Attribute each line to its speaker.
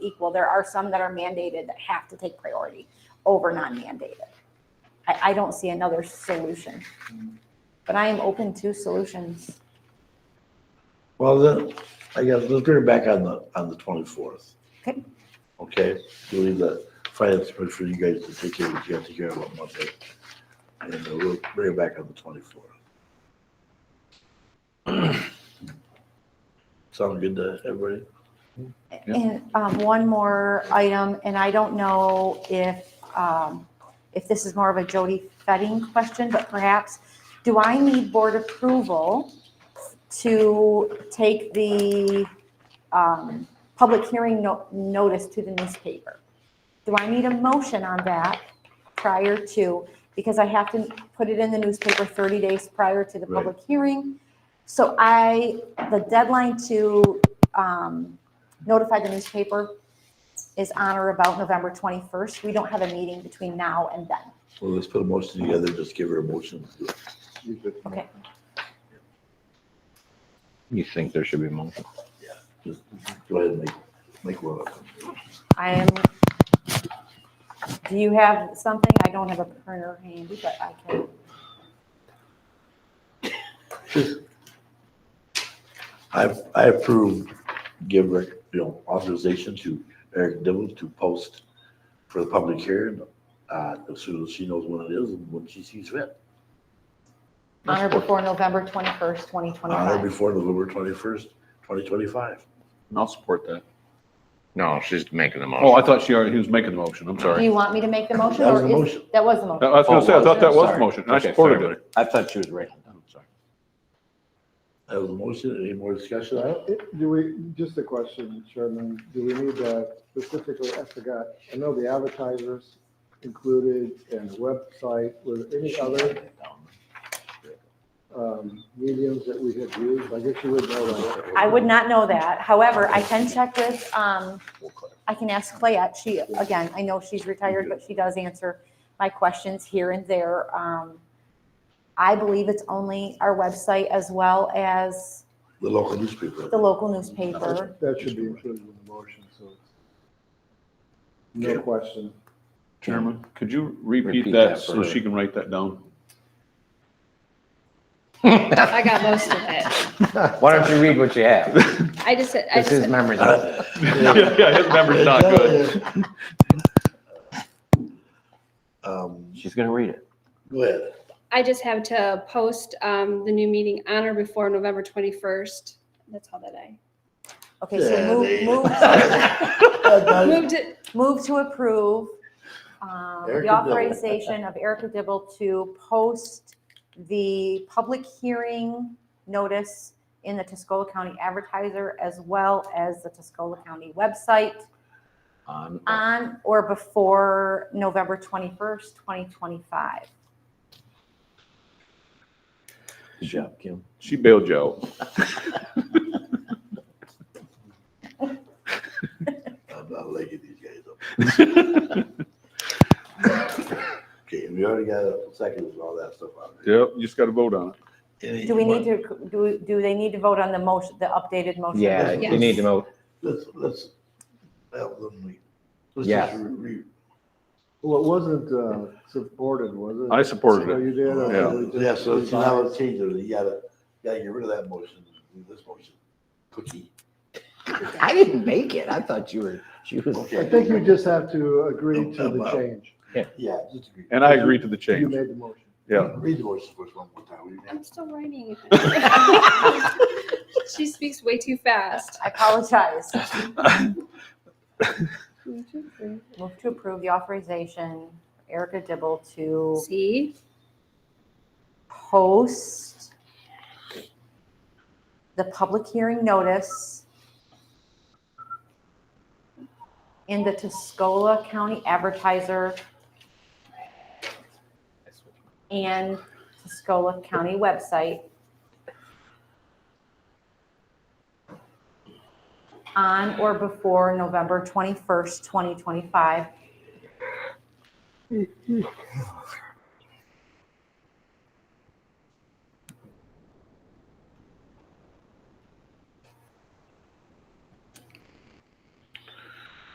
Speaker 1: equal. There are some that are mandated that have to take priority over non-mandated. I, I don't see another solution. But I am open to solutions.
Speaker 2: Well, then, I guess, let's bring it back on the, on the twenty-fourth.
Speaker 1: Okay.
Speaker 2: Okay, we'll leave the finance committee for you guys to take care of, you have to care about Monday. And then we'll bring it back on the twenty-fourth. Sound good to everybody?
Speaker 3: Yeah.
Speaker 1: And um, one more item, and I don't know if, um, if this is more of a Jody Fetting question, but perhaps, do I need board approval to take the um, public hearing no- notice to the newspaper? Do I need a motion on that prior to, because I have to put it in the newspaper 30 days prior to the
Speaker 2: Right.
Speaker 1: public hearing? So I, the deadline to um, notify the newspaper is on or about November 21st. We don't have a meeting between now and then.
Speaker 2: Well, let's put a motion together, just give her a motion.
Speaker 1: Okay.
Speaker 3: You think there should be more?
Speaker 2: Just Go ahead and make, make one up.
Speaker 1: I am, do you have something? I don't have a printer handy, but I can.
Speaker 2: I, I approve, give, rec- you know, authorization to Eric Dibble to post for the public hearing, uh, as soon as she knows when it is and when she sees fit.
Speaker 1: Honor before November 21st, 2025.
Speaker 2: On or before November twenty-first, twenty twenty-five.
Speaker 3: I'll support that.
Speaker 4: No, she's making the motion.
Speaker 3: Oh, I thought she already, he was making the motion, I'm
Speaker 1: Do
Speaker 3: sorry.
Speaker 1: you want me to make the motion?
Speaker 2: That was
Speaker 1: or
Speaker 2: the
Speaker 1: is-
Speaker 2: motion.
Speaker 1: That was the
Speaker 3: I
Speaker 1: motion.
Speaker 3: was gonna say, I thought that was the
Speaker 4: Sorry.
Speaker 3: motion, and I
Speaker 4: Okay,
Speaker 3: supported
Speaker 4: sorry,
Speaker 3: it.
Speaker 4: I thought she was writing it down, sorry.
Speaker 2: That was a motion. Any more discussion on it?
Speaker 5: It- Do we, just a question, Chairman, do we need that specifically, I forgot, I know the advertisers included and the website, were there any other um, mediums that we had used? I guess you would know that.
Speaker 1: I would not know that. However, I can check with, um, I can ask Clayette. She, again, I know she's retired, but she does answer my questions here and there. Um, I believe it's only our website as well as
Speaker 2: The local newspaper.
Speaker 1: the local newspaper.
Speaker 5: That should be included in the motion, so. it's- No question.
Speaker 3: Chairman, could you
Speaker 4: Repeat
Speaker 3: repeat
Speaker 4: that
Speaker 3: that
Speaker 4: for
Speaker 3: so
Speaker 4: her.
Speaker 3: she can write that down?
Speaker 6: I got most of it.
Speaker 4: Why don't you read what you have?
Speaker 6: I just, I
Speaker 4: This is
Speaker 6: just,
Speaker 4: memory.
Speaker 2: Uh,
Speaker 3: Yeah, yeah, his memory's not good.
Speaker 2: Um,
Speaker 4: She's gonna read it.
Speaker 2: go ahead.
Speaker 6: I just have to post um, the new meeting on or before November 21st. That's all that I
Speaker 1: Okay, so
Speaker 2: Yeah,
Speaker 1: move,
Speaker 2: they-
Speaker 1: move,
Speaker 2: Uh,
Speaker 6: moved it.
Speaker 1: move to approve, um,
Speaker 2: Erica
Speaker 1: the
Speaker 2: Dibble.
Speaker 1: authorization of Erica Dibble to post the public hearing notice in the Tuscola County Advertiser as well as the Tuscola County website
Speaker 4: On.
Speaker 1: on or before November 21st, 2025.
Speaker 4: Good job, Kim.
Speaker 3: She bailed you out.
Speaker 2: I'm not liking these guys up. Okay, we already got a second and all that stuff on there.
Speaker 3: Yep, you just gotta vote on it.
Speaker 2: Any-
Speaker 1: Do we need to, do, we- do they need to vote on the motion, the updated motion?
Speaker 4: Yeah,
Speaker 2: Yeah.
Speaker 4: you need to know.
Speaker 2: Let's, let's, help them, we- let's
Speaker 4: Yes.
Speaker 2: just re- re-
Speaker 5: Well, it wasn't uh, supported, was it?
Speaker 3: I supported
Speaker 5: So
Speaker 3: it.
Speaker 5: you did? or
Speaker 3: Yeah.
Speaker 5: we just-
Speaker 2: uh, Yeah, so so now let's change it, you gotta, gotta get rid of that motion, do this motion, cookie.
Speaker 4: I didn't make it. I thought you were, she was.
Speaker 5: I think you just have to agree to the change.
Speaker 2: Yeah, just agree.
Speaker 3: And I agree to the
Speaker 5: You
Speaker 3: change,
Speaker 5: made the motion.
Speaker 3: yeah.
Speaker 2: Read the motion first one more time. will you,
Speaker 6: I'm
Speaker 2: Nancy?
Speaker 6: still writing it. She speaks way too fast.
Speaker 1: I apologize. Move to approve the authorization, Erica Dibble to
Speaker 6: See?
Speaker 1: post the public hearing notice in the Tuscola County Advertiser and Tuscola County website on or before November 21st, 2025,